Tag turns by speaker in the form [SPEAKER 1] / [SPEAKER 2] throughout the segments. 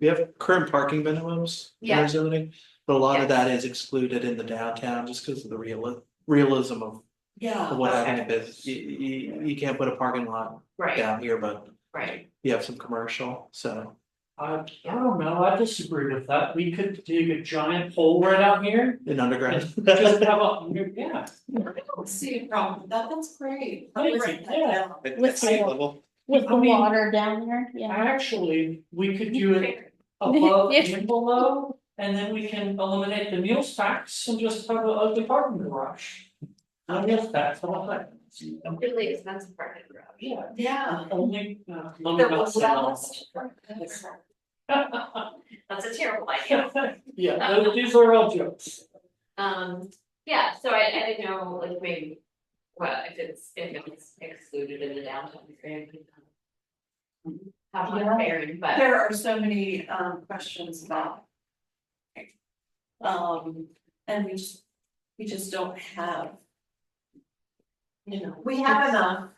[SPEAKER 1] we have current parking minimums in
[SPEAKER 2] Yeah.
[SPEAKER 1] our zoning, but a lot of
[SPEAKER 2] Yes.
[SPEAKER 1] that is excluded in the downtown just because of the real realism of
[SPEAKER 2] Yeah.
[SPEAKER 1] of what happened in
[SPEAKER 2] okay.
[SPEAKER 1] business. You you you can't put a parking lot
[SPEAKER 2] Right,
[SPEAKER 1] down here, but
[SPEAKER 2] right.
[SPEAKER 1] you have some commercial, so.
[SPEAKER 3] I, I don't know, I disagree with that, we could dig a giant hole right out here,
[SPEAKER 1] In underground,
[SPEAKER 3] just have a, yeah.
[SPEAKER 2] I don't see a problem with that, that's great.
[SPEAKER 3] I agree, yeah.
[SPEAKER 4] With
[SPEAKER 3] sea
[SPEAKER 4] level. With
[SPEAKER 3] I
[SPEAKER 4] the
[SPEAKER 3] mean-
[SPEAKER 4] water down there, yeah.
[SPEAKER 3] Actually, we could do it above and below, and then we can eliminate the meals tax and just have a ugly parking garage. I guess that's all that.
[SPEAKER 5] Really expensive part of the road.
[SPEAKER 3] Yeah,
[SPEAKER 2] Yeah.
[SPEAKER 3] only, uh, let me
[SPEAKER 5] That
[SPEAKER 3] not
[SPEAKER 5] was-
[SPEAKER 3] say
[SPEAKER 5] that
[SPEAKER 3] no.
[SPEAKER 5] was- That's a terrible idea.
[SPEAKER 3] Yeah, those- these are all jokes.
[SPEAKER 5] Um, yeah, so I, I didn't know, like, maybe, well, if it's, if it's excluded in the downtown area. Have
[SPEAKER 2] Yeah.
[SPEAKER 5] one bearing, but
[SPEAKER 2] There are so many um questions about. Um, and we just, we just don't have. You know, we have enough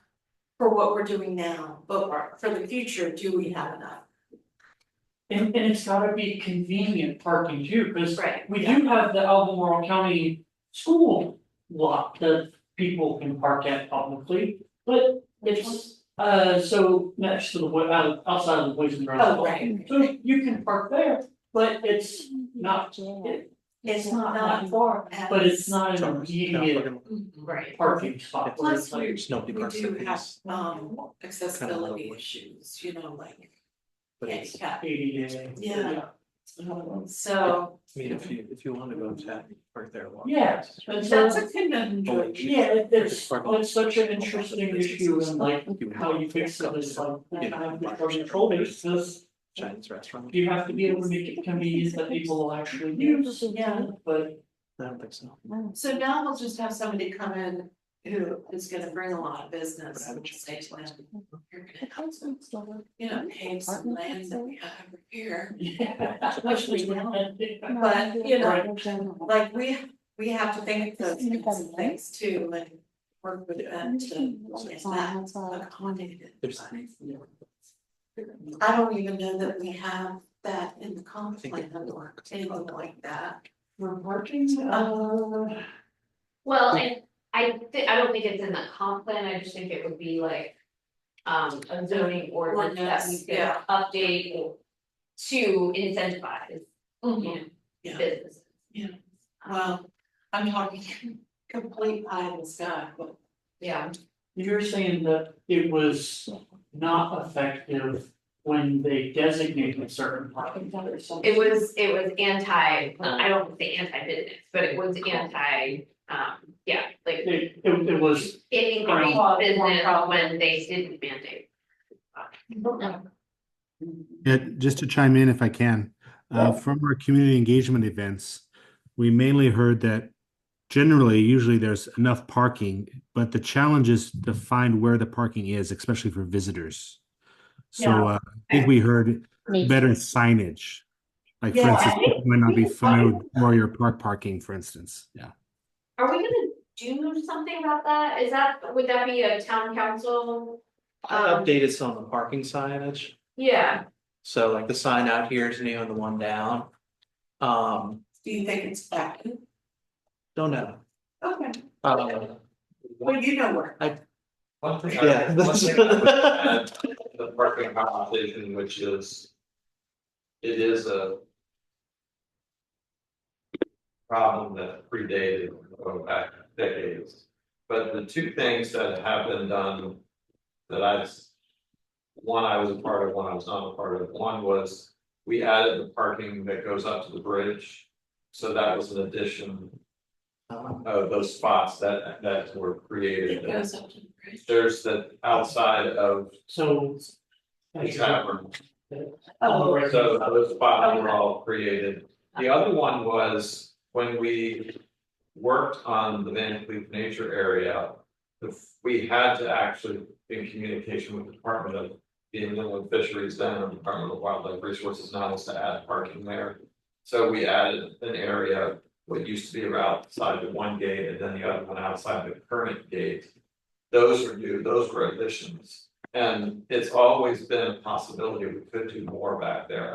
[SPEAKER 2] for what we're doing now, but for- for the future, do we have enough?
[SPEAKER 3] And, and it's gotta be convenient parking too, cause
[SPEAKER 5] right,
[SPEAKER 3] We do have the Albemarle County School lot that people can park at publicly, but it's, uh, so next to the, wa- out- outside of the Poison Ground.
[SPEAKER 2] Oh, right.
[SPEAKER 3] So you can park there, but it's not,
[SPEAKER 4] Yeah.
[SPEAKER 2] It's
[SPEAKER 3] not
[SPEAKER 2] not
[SPEAKER 3] that
[SPEAKER 2] far,
[SPEAKER 3] but it's not an
[SPEAKER 1] Sorry, no,
[SPEAKER 3] immediate
[SPEAKER 1] parking lot.
[SPEAKER 5] right.
[SPEAKER 3] parking spot. where it's
[SPEAKER 2] Plus we-
[SPEAKER 3] like-
[SPEAKER 1] there's no
[SPEAKER 2] We
[SPEAKER 1] parking
[SPEAKER 2] do have
[SPEAKER 1] space,
[SPEAKER 2] um
[SPEAKER 1] Kind of
[SPEAKER 2] accessibility
[SPEAKER 1] low.
[SPEAKER 2] issues, you know, like
[SPEAKER 1] but it's, I
[SPEAKER 2] handicap,
[SPEAKER 3] ADA.
[SPEAKER 2] Yeah. so.
[SPEAKER 1] mean, if you if you want to go to park there a lot.
[SPEAKER 3] Yeah. And so,
[SPEAKER 2] That's a
[SPEAKER 1] Oh,
[SPEAKER 2] conundrum.
[SPEAKER 3] yeah, it- it's, well, it's such an interesting issue and like how you fix it is like,
[SPEAKER 1] You
[SPEAKER 3] I
[SPEAKER 1] know,
[SPEAKER 3] have the control basis.
[SPEAKER 1] Chinese restaurant,
[SPEAKER 3] You have to be able to make it convenient that people will actually use,
[SPEAKER 2] Yeah.
[SPEAKER 3] but
[SPEAKER 1] I don't think so.
[SPEAKER 2] So now we'll just have somebody come in who is gonna bring a lot of business and we'll say to them, you're gonna, you know, pave some land that we have over here.
[SPEAKER 3] yeah.
[SPEAKER 2] Which we don't. But, you know, Like, we, we have to think of those kinds of things too, and work with them to get that accommodated.
[SPEAKER 1] There's-
[SPEAKER 2] I don't even know that we have that in the
[SPEAKER 1] I
[SPEAKER 2] comp
[SPEAKER 1] think it
[SPEAKER 2] plan or anything like that.
[SPEAKER 3] For parking, uh,
[SPEAKER 5] Well, and I thi- I don't think it's in the comp plan, I just think it would be like. Um, a zoning ordinance that we
[SPEAKER 2] Ordinance,
[SPEAKER 5] could
[SPEAKER 2] yeah.
[SPEAKER 5] update or to incentivize,
[SPEAKER 1] Mm-hmm.
[SPEAKER 5] you know,
[SPEAKER 2] Yeah.
[SPEAKER 5] businesses.
[SPEAKER 2] Mm-hmm.
[SPEAKER 5] Um,
[SPEAKER 2] Yeah. Well, Um, I'm talking complete pie in the sky, but
[SPEAKER 5] Yeah,
[SPEAKER 3] you're saying that it was not effective when they designated certain parking areas.
[SPEAKER 5] it was, it was anti, I don't wanna say anti-business, but it was anti, um, yeah, like.
[SPEAKER 3] It, it, it was,
[SPEAKER 5] It increased
[SPEAKER 3] Right.
[SPEAKER 5] business when they didn't mandate.
[SPEAKER 6] Yeah, Uh, just to chime in if I can, uh, from our community engagement events, we mainly heard that generally, usually there's enough parking, but the challenge is to find where the parking is, especially for visitors. So
[SPEAKER 3] Yeah.
[SPEAKER 6] uh, I think we heard better signage. Like for
[SPEAKER 2] Yeah, I
[SPEAKER 6] instance, people might not be familiar with Warrior Park parking, for instance, yeah.
[SPEAKER 5] Are we gonna do something about that? Is that, would that be a town council?
[SPEAKER 1] I updated some of the parking signage.
[SPEAKER 5] Yeah,
[SPEAKER 1] So like the sign out here is new and the one down. Um,
[SPEAKER 2] do you think it's back?
[SPEAKER 1] don't know.
[SPEAKER 2] Okay,
[SPEAKER 1] Uh,
[SPEAKER 2] well, you know where.
[SPEAKER 7] One thing, I-
[SPEAKER 1] Yeah.
[SPEAKER 7] one thing I would add to the parking conversation, which is. It is a. Problem that predated going back decades, but the two things that have been done that I've. One I was a part of, one I was not a part of, one was we added the parking that goes up to the bridge. So that was an addition
[SPEAKER 1] um,
[SPEAKER 7] of those spots that that were created.
[SPEAKER 2] It goes up to the bridge.
[SPEAKER 7] There's the outside of
[SPEAKER 3] so.
[SPEAKER 7] the tavern,
[SPEAKER 2] Oh,
[SPEAKER 7] so those spots were all created. The other one was when we worked on the Van Cleef Nature Area. the- We had to actually be in communication with the Department of the Inland Fisheries then, and Department of Wildlife Resources now is to add parking there. So we added an area, what used to be around outside the one gate and then the other one outside the current gate. Those were new, those were additions. And it's always been a possibility we could do more back there.